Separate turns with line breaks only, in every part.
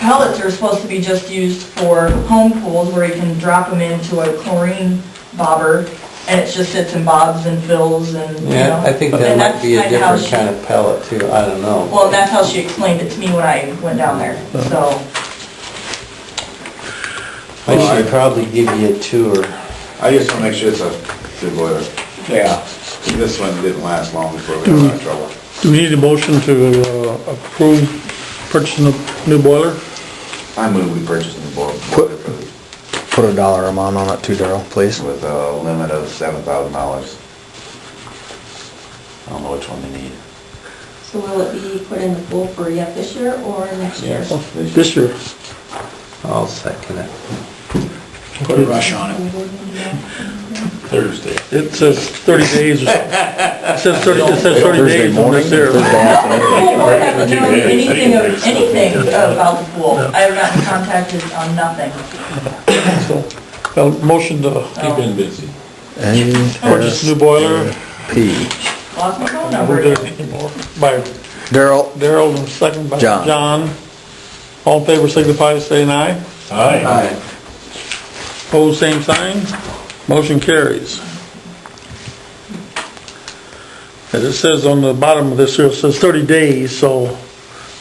pellets are supposed to be just used for home pools where you can drop them into a chlorine bobber and it just sits and bobs and fills and, you
Yeah, I
know.
think that
And
might be a
that's kinda how
different kind of pellet too, I don't know.
Well, that's how she explained it to me when I went down there, so.
I should probably give you a tour.
I just want to make sure it's a good boiler.
Yeah.
This one didn't last long before we got in trouble.
Do we need a motion to uh, approve purchasing a new boiler?
I move we purchased the boil- boiler for the-
Put a dollar amount on it too, Daryl, please.
with a limit of seven thousand dollars. I don't know which one they need.
So will it be put in the pool for yet this year or next year?
This year.
I'll second it.
Put a rush on it.
Thursday.
It says 30 days. It says 30, it says 30
Thursday
days on
morning,
this here.
Thursday afternoon.
Well, we're not doing anything, of- anything about the pool. I have gotten contacted on nothing.
Uh, Motion to
You've been busy.
purchase a new boiler
P.
Lost my phone
We're
number.
good anymore. by
Daryl,
Daryl and second by
John.
John. All in favor signify by saying aye.
Aye.
Pose same sign. Motion carries. And it says on the bottom of this here, it says 30 days, so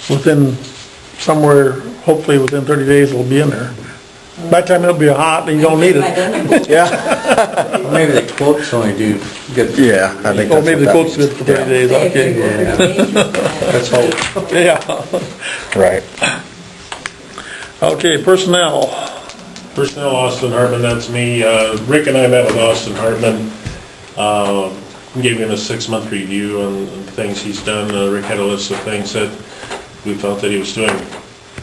within, somewhere, hopefully within 30 days it'll be in there. By the time it'll be hot and you don't need
By
it.
then,
yeah?
Maybe the quotes only do good.
Yeah, I think that's
Or Oh, maybe the
what
quote's
that means.
good for 30 days,
if
okay.
you were to-
Let's hope.
Yeah,
Right.
okay, personnel.
Personnel, Austin Hartman, that's me. Uh, Rick and I met with Austin Hartman. Um, Gave him a six-month review on things he's done. Uh, Rick had a list of things that we felt that he was doing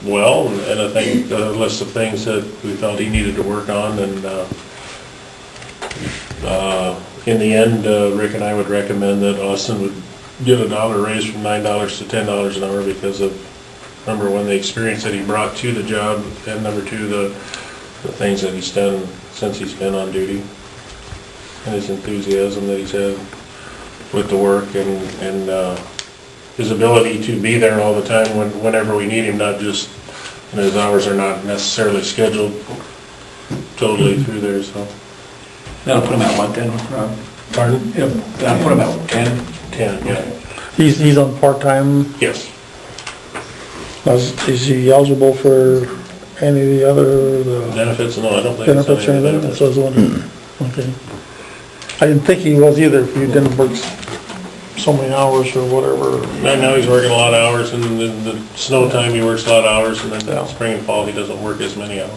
well, and I think a list of things that we felt he needed to work on, and uh, uh, in the end, uh, Rick and I would recommend that Austin would get a dollar raise from nine dollars to ten dollars an hour because of, number one, the experience that he brought to the job, and number two, the, the things that he's done since he's been on duty, and his enthusiasm that he's had with the work and, and uh, his ability to be there all the time when whenever we need him, not just, and his hours are not necessarily scheduled totally through there, so.
That'll put him at what then, Rob?
Pardon?
Yep, that'll put him at ten?
Ten, yeah,
He's, he's on part-time.
yes.
Is is he eligible for any of the other, the
Benefits, no, I don't think. it's
benefits or
any
anything? That's what I was wondering. Okay. I didn't think he was either, if he didn't work so many hours or whatever.
Right now, he's working a lot of hours, and then the snow time, he works a lot of hours, and then spring and fall, he doesn't work as many hours.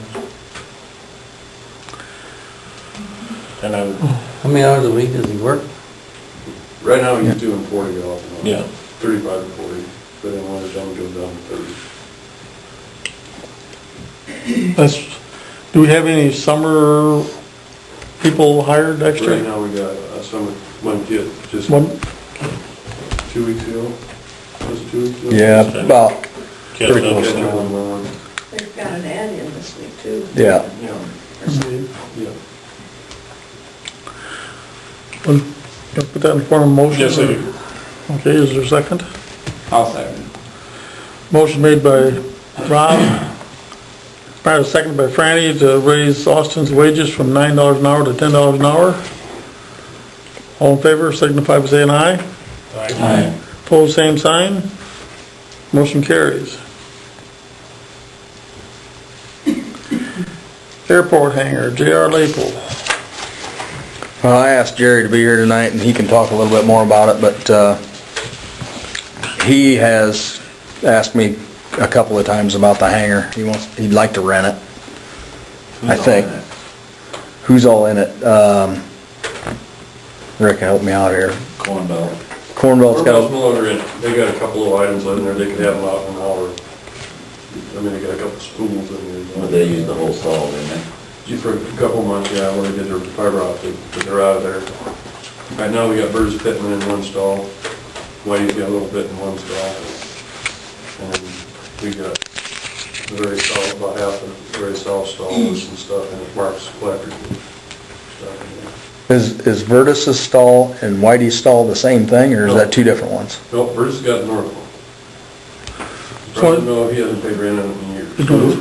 And I'm,
How many hours a week does he work?
Right now, he's doing forty off and on.
Yeah.
Thirty-five to forty, but then when it's done, it goes down to thirty.
That's, do we have any summer people hired
Right
extra?
now, we got uh, some, one kid, just
One,
two weeks ago, was it two weeks ago?
Yeah, about,
catching up.
Catching one by one,
They've got an ad in this week too.
yeah.
yeah, yeah.
one, can I put that in form of motion?
Yes, I do.
Okay, is there a second?
I'll second.
Motion made by Rob, prior second by Franny to raise Austin's wages from nine dollars an hour to ten dollars an hour. All in favor, signify by saying aye.
Aye.
Pose same sign. Motion carries. Airport hangar, J.R. Lapel.
Well, I asked Jerry to be here tonight and he can talk a little bit more about it, but, uh, he has asked me a couple of times about the hangar. He wants, he'd like to rent it. I think. Who's all in it? Um, Rick, help me out here.
Corn belt.
Cornwall's
Or
got a
most longer in, they got a couple of items in there, they could have them out in an hour. I mean, they got a couple spools in there.
But they use the whole stall, didn't they?
Just for a couple months, yeah, when they did their fiber optic, but they're out of there. Right now, we got Bruce Pittman in one stall, Wade's got a little bit in one stall. And we got the very soft, about half of the very soft stall with some stuff in it, Mark's collector. stuff in there.
Is, is Vertus's stall and Whitey's stall the same thing, or is that two different ones?
No, Bruce has got the north one.
So-
Bruce, no, he hasn't paid rent in years.
You're doing-